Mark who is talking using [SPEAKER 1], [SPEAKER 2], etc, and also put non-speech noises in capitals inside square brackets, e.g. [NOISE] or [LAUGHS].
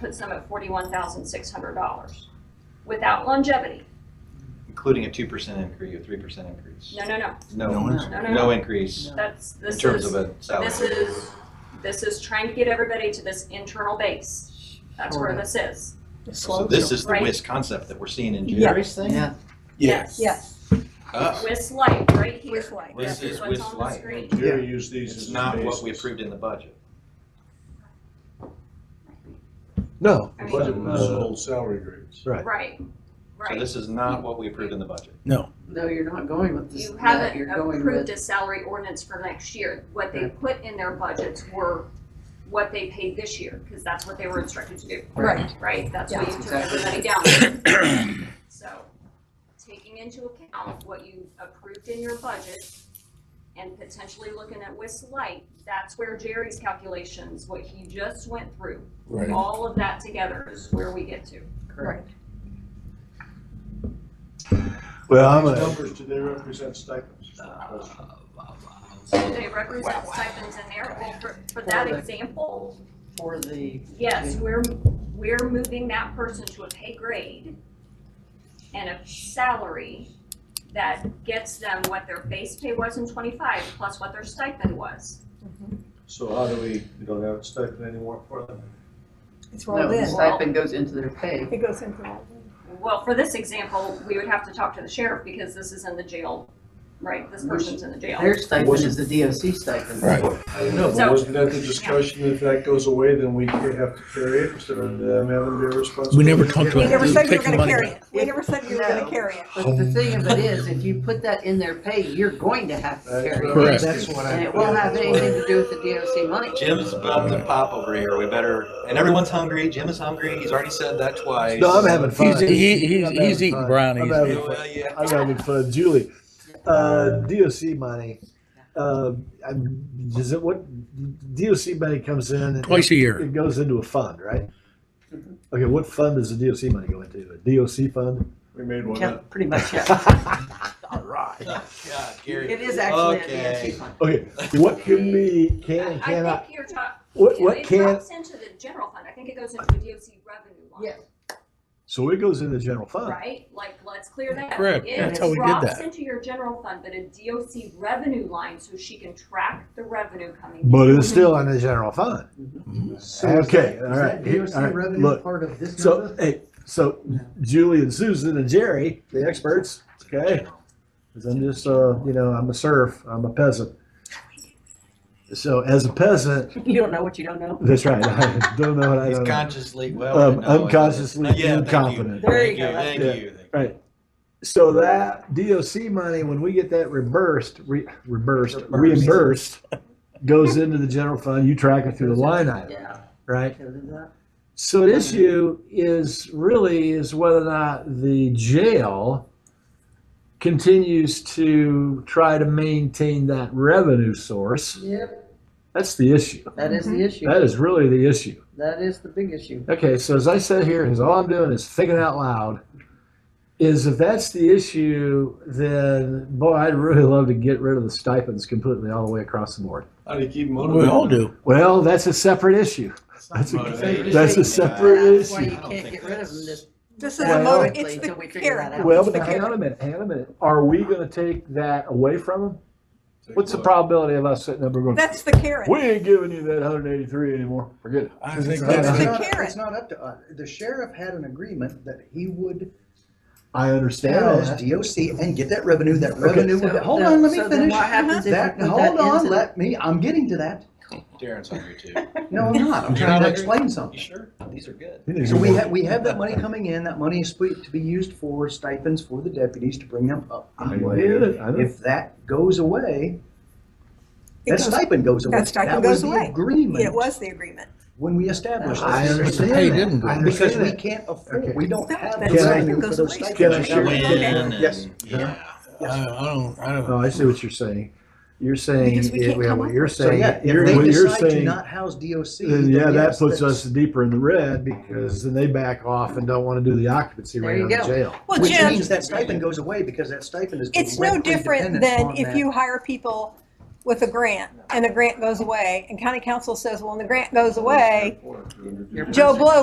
[SPEAKER 1] puts them at forty-one thousand six hundred dollars without longevity.
[SPEAKER 2] including a two percent increase, a three percent increase.
[SPEAKER 1] No, no, no,
[SPEAKER 2] No,
[SPEAKER 1] no, no,
[SPEAKER 2] no
[SPEAKER 1] no.
[SPEAKER 2] increase
[SPEAKER 1] That's,
[SPEAKER 2] in
[SPEAKER 1] this
[SPEAKER 2] terms
[SPEAKER 1] is,
[SPEAKER 2] of a
[SPEAKER 1] this
[SPEAKER 2] salary.
[SPEAKER 1] is, this is trying to get everybody to this internal base. That's where
[SPEAKER 3] Sure.
[SPEAKER 1] this is.
[SPEAKER 2] So this is the
[SPEAKER 1] Right.
[SPEAKER 2] WIS concept that we're seeing in
[SPEAKER 4] Yeah.
[SPEAKER 2] Jerry's thing?
[SPEAKER 3] Yeah.
[SPEAKER 1] Yes.
[SPEAKER 4] Yes,
[SPEAKER 2] Oh,
[SPEAKER 1] With light right here.
[SPEAKER 4] with light.
[SPEAKER 2] This
[SPEAKER 1] That's
[SPEAKER 2] is
[SPEAKER 1] what's
[SPEAKER 2] with
[SPEAKER 1] on the
[SPEAKER 2] light.
[SPEAKER 1] screen.
[SPEAKER 5] Jerry used these
[SPEAKER 2] It's
[SPEAKER 5] as
[SPEAKER 2] not what we
[SPEAKER 5] basis.
[SPEAKER 2] approved in the budget.
[SPEAKER 6] No,
[SPEAKER 1] I
[SPEAKER 5] The
[SPEAKER 1] mean,
[SPEAKER 5] budget was
[SPEAKER 6] Uh,
[SPEAKER 5] old salary grades.
[SPEAKER 6] right.
[SPEAKER 1] Right,
[SPEAKER 2] So
[SPEAKER 1] right.
[SPEAKER 2] this is not what we approved in the budget.
[SPEAKER 3] No, you're not going with this,
[SPEAKER 1] You
[SPEAKER 3] that,
[SPEAKER 1] haven't
[SPEAKER 3] you're going
[SPEAKER 1] approved a
[SPEAKER 3] with,
[SPEAKER 1] salary ordinance for next year. What they
[SPEAKER 3] Right.
[SPEAKER 1] put in their budgets were what they paid this year, because that's what they were instructed to do.
[SPEAKER 4] Right.
[SPEAKER 1] Right, that's what
[SPEAKER 3] Yeah.
[SPEAKER 1] you took
[SPEAKER 3] Exactly.
[SPEAKER 1] everybody down. So, taking into account what you approved in your budget and potentially looking at WIS light, that's where Jerry's calculations, what he just went through, all of that together is where we get to.
[SPEAKER 3] correct.
[SPEAKER 6] Well, I'm
[SPEAKER 5] These
[SPEAKER 6] a,
[SPEAKER 5] numbers, do they represent stipends? is my question.
[SPEAKER 1] Do they represent stipends in there? Well, for, for that
[SPEAKER 3] Well, the-
[SPEAKER 1] example,
[SPEAKER 3] For the,
[SPEAKER 1] Yes, we're, we're moving that person to a pay grade and a salary that gets them what their base pay was in twenty-five plus what their stipend was.
[SPEAKER 5] So how do we, we don't have a stipend anymore for them?
[SPEAKER 4] It's
[SPEAKER 3] no,
[SPEAKER 4] rolled
[SPEAKER 3] the
[SPEAKER 4] in.
[SPEAKER 3] stipend goes into their pay.
[SPEAKER 4] It goes into rolled
[SPEAKER 1] Well, for this example, we would have to talk to the sheriff because this is in the jail, right? This person's in the jail.
[SPEAKER 3] Their stipend is the DOC stipend.
[SPEAKER 7] Right.
[SPEAKER 5] I know,
[SPEAKER 1] So-
[SPEAKER 5] but wasn't that the discussion, if that goes away, then we could have to carry it instead of them having their responsibility?
[SPEAKER 7] We never talked
[SPEAKER 4] in. We
[SPEAKER 7] about
[SPEAKER 4] never said we were
[SPEAKER 7] taking
[SPEAKER 4] gonna
[SPEAKER 7] money.
[SPEAKER 4] carry it. We never said we were gonna carry it.
[SPEAKER 3] But the thing of it is, if you put that in their pay, you're going to have to carry it.
[SPEAKER 7] Correct.
[SPEAKER 6] that's what I.
[SPEAKER 3] And it won't have anything to do with the DOC money.
[SPEAKER 2] Jim's melting pop over here. We better, and everyone's hungry. Jim is hungry. He's already said that twice.
[SPEAKER 6] No, I'm having fun.
[SPEAKER 7] He's, he, he's,
[SPEAKER 6] I'm having
[SPEAKER 7] he's eating
[SPEAKER 6] fun.
[SPEAKER 7] brownies.
[SPEAKER 6] I'm having fun.
[SPEAKER 2] Well, yeah.
[SPEAKER 6] I'm having fun. Julie, uh, DOC money. Uh, I'm, does it what DOC money comes in? And
[SPEAKER 7] Twice a year.
[SPEAKER 6] It goes into a fund, right? Okay, what fund does the DOC money go into? A DOC fund?
[SPEAKER 5] We made one
[SPEAKER 3] Yeah,
[SPEAKER 5] up.
[SPEAKER 3] pretty much, yeah.
[SPEAKER 6] All right.
[SPEAKER 2] God, Gary.
[SPEAKER 3] [LAUGHS] It is actually a
[SPEAKER 2] Okay.
[SPEAKER 3] DOC fund.
[SPEAKER 6] [LAUGHS] Okay, what can be can and
[SPEAKER 1] I- I
[SPEAKER 6] cannot?
[SPEAKER 1] think you're talking,
[SPEAKER 6] What what
[SPEAKER 1] it
[SPEAKER 6] can?
[SPEAKER 1] drops into the general fund. I think it goes into the DOC revenue line,
[SPEAKER 3] Yes.
[SPEAKER 6] So it goes into the general fund.
[SPEAKER 1] right? Like, let's clear that.
[SPEAKER 7] Correct.
[SPEAKER 1] It
[SPEAKER 3] That's how
[SPEAKER 7] we did
[SPEAKER 1] Drops
[SPEAKER 7] that.
[SPEAKER 1] into your general fund, but a DOC revenue line so she can track the revenue coming in.
[SPEAKER 6] But it's still in the general fund. Okay, all right, here- all right, look.
[SPEAKER 3] part of this
[SPEAKER 6] So, hey, so Julie and Susan and Jerry, the experts, okay? 'Cause I'm just, uh, you know, I'm a serf, I'm a peasant. So as a peasant, [LAUGHS]
[SPEAKER 3] You don't know what you don't know.
[SPEAKER 6] that's right, I don't know what I
[SPEAKER 2] He's
[SPEAKER 6] don't know.
[SPEAKER 2] consciously, well.
[SPEAKER 6] Um,
[SPEAKER 2] no, it's-
[SPEAKER 6] unconsciously
[SPEAKER 2] Yeah, thank you.
[SPEAKER 6] incompetent.
[SPEAKER 3] There you
[SPEAKER 2] Thank
[SPEAKER 3] go.
[SPEAKER 2] Thank
[SPEAKER 6] Yeah.
[SPEAKER 2] you. Thank you.
[SPEAKER 6] Right. So that DOC money, when we get that reimbursed, re- reimbursed, reimbursed, goes into the general fund, you track it through the line item,
[SPEAKER 3] Yeah.
[SPEAKER 6] right?
[SPEAKER 3] because of that.
[SPEAKER 6] So the issue is really is whether or not the jail continues to try to maintain that revenue source.
[SPEAKER 3] Yep,
[SPEAKER 6] That's the issue.
[SPEAKER 3] that is the issue.
[SPEAKER 6] That is really the issue.
[SPEAKER 3] That is the big issue.
[SPEAKER 6] Okay, so as I said here, is all I'm doing is thinking out loud. Is if that's the issue, then boy, I'd really love to get rid of the stipends completely all the way across the board.
[SPEAKER 5] How do you keep motivated?
[SPEAKER 7] We all do.
[SPEAKER 6] Well, that's a separate issue. That's a,
[SPEAKER 2] Motivated.
[SPEAKER 6] that's a separate
[SPEAKER 3] That's why
[SPEAKER 6] issue.
[SPEAKER 3] you
[SPEAKER 2] I don't
[SPEAKER 3] can't
[SPEAKER 2] think
[SPEAKER 3] get rid of them
[SPEAKER 2] that's-
[SPEAKER 3] this.
[SPEAKER 4] This is a
[SPEAKER 6] Well-
[SPEAKER 4] motor, it's
[SPEAKER 3] Until
[SPEAKER 4] the
[SPEAKER 3] we figure that
[SPEAKER 4] carrot.
[SPEAKER 3] out.
[SPEAKER 6] Well,
[SPEAKER 4] It's the
[SPEAKER 6] but hang on
[SPEAKER 4] carrot.
[SPEAKER 6] a minute, hang on a minute. Are we gonna take that away from them?
[SPEAKER 5] Take
[SPEAKER 6] What's the
[SPEAKER 5] what?
[SPEAKER 6] probability of us sitting up and going,
[SPEAKER 4] That's the carrot.
[SPEAKER 6] we ain't giving you that hundred eighty-three anymore, forget it.
[SPEAKER 7] I think
[SPEAKER 6] That's
[SPEAKER 4] That's
[SPEAKER 6] the
[SPEAKER 4] the
[SPEAKER 8] not- It's
[SPEAKER 4] carrot.
[SPEAKER 8] not up to us. The sheriff had an agreement that he would
[SPEAKER 6] I understand
[SPEAKER 8] house
[SPEAKER 6] that.
[SPEAKER 8] DOC and get that revenue, that revenue, would-
[SPEAKER 3] So-
[SPEAKER 8] hold on, let
[SPEAKER 3] so
[SPEAKER 8] me
[SPEAKER 3] then
[SPEAKER 8] finish. Uh-huh.
[SPEAKER 3] What happens if you
[SPEAKER 8] That,
[SPEAKER 3] put that
[SPEAKER 8] hold on,
[SPEAKER 3] into the-
[SPEAKER 8] let me, I'm getting to that.
[SPEAKER 2] Darren's hungry too.
[SPEAKER 8] No, I'm not. I'm trying to explain
[SPEAKER 2] You
[SPEAKER 8] something.
[SPEAKER 2] sure? These are good.
[SPEAKER 6] You need
[SPEAKER 8] So
[SPEAKER 6] to
[SPEAKER 8] we
[SPEAKER 6] work.
[SPEAKER 8] have, we have that money coming in. That money is split to be used for stipends for the deputies to bring them up.
[SPEAKER 6] I get it, I know.
[SPEAKER 8] If that goes away, that
[SPEAKER 4] It goes-
[SPEAKER 8] stipend goes away.
[SPEAKER 4] that stipend
[SPEAKER 8] was
[SPEAKER 4] goes
[SPEAKER 8] the
[SPEAKER 4] away. It
[SPEAKER 8] Agreement
[SPEAKER 4] was the agreement.
[SPEAKER 8] when we established this.
[SPEAKER 6] I understand
[SPEAKER 7] Hey,
[SPEAKER 6] that.
[SPEAKER 7] didn't
[SPEAKER 6] I
[SPEAKER 7] go.
[SPEAKER 8] Because
[SPEAKER 6] understand
[SPEAKER 8] we
[SPEAKER 6] that.
[SPEAKER 8] can't
[SPEAKER 6] Okay.
[SPEAKER 8] afford, we don't have
[SPEAKER 4] That
[SPEAKER 8] the
[SPEAKER 6] stipend
[SPEAKER 8] revenue for
[SPEAKER 4] goes
[SPEAKER 8] those
[SPEAKER 4] away.
[SPEAKER 8] stipends.
[SPEAKER 6] Can I share-
[SPEAKER 2] Win
[SPEAKER 4] Okay.
[SPEAKER 2] and-
[SPEAKER 8] Yes.
[SPEAKER 2] Yeah.
[SPEAKER 7] I, I don't. I don't.
[SPEAKER 6] Oh, I see what you're saying. You're saying,
[SPEAKER 4] Because we can't
[SPEAKER 6] yeah,
[SPEAKER 4] come
[SPEAKER 6] what
[SPEAKER 4] up
[SPEAKER 6] you're
[SPEAKER 4] with-
[SPEAKER 8] So
[SPEAKER 6] saying,
[SPEAKER 8] yeah,
[SPEAKER 6] you're-
[SPEAKER 8] if they
[SPEAKER 6] what you're
[SPEAKER 8] decide to
[SPEAKER 6] saying,
[SPEAKER 8] not house DOC.
[SPEAKER 6] then
[SPEAKER 8] then
[SPEAKER 6] yeah, that
[SPEAKER 8] yes,
[SPEAKER 6] puts us
[SPEAKER 8] that's-
[SPEAKER 6] deeper in the red because then they back off and don't wanna do the occupancy
[SPEAKER 3] There
[SPEAKER 6] rate
[SPEAKER 3] you
[SPEAKER 6] on the
[SPEAKER 3] go.
[SPEAKER 6] jail.
[SPEAKER 4] Well,
[SPEAKER 8] Which
[SPEAKER 4] Jim,
[SPEAKER 8] means that stipend goes away because that stipend is
[SPEAKER 4] it's no
[SPEAKER 8] directly
[SPEAKER 4] different
[SPEAKER 8] dependent
[SPEAKER 4] than
[SPEAKER 8] on
[SPEAKER 4] if
[SPEAKER 8] that.
[SPEAKER 4] you hire people with a grant and the grant goes away and county council says, well, when the grant goes away, Joe Blow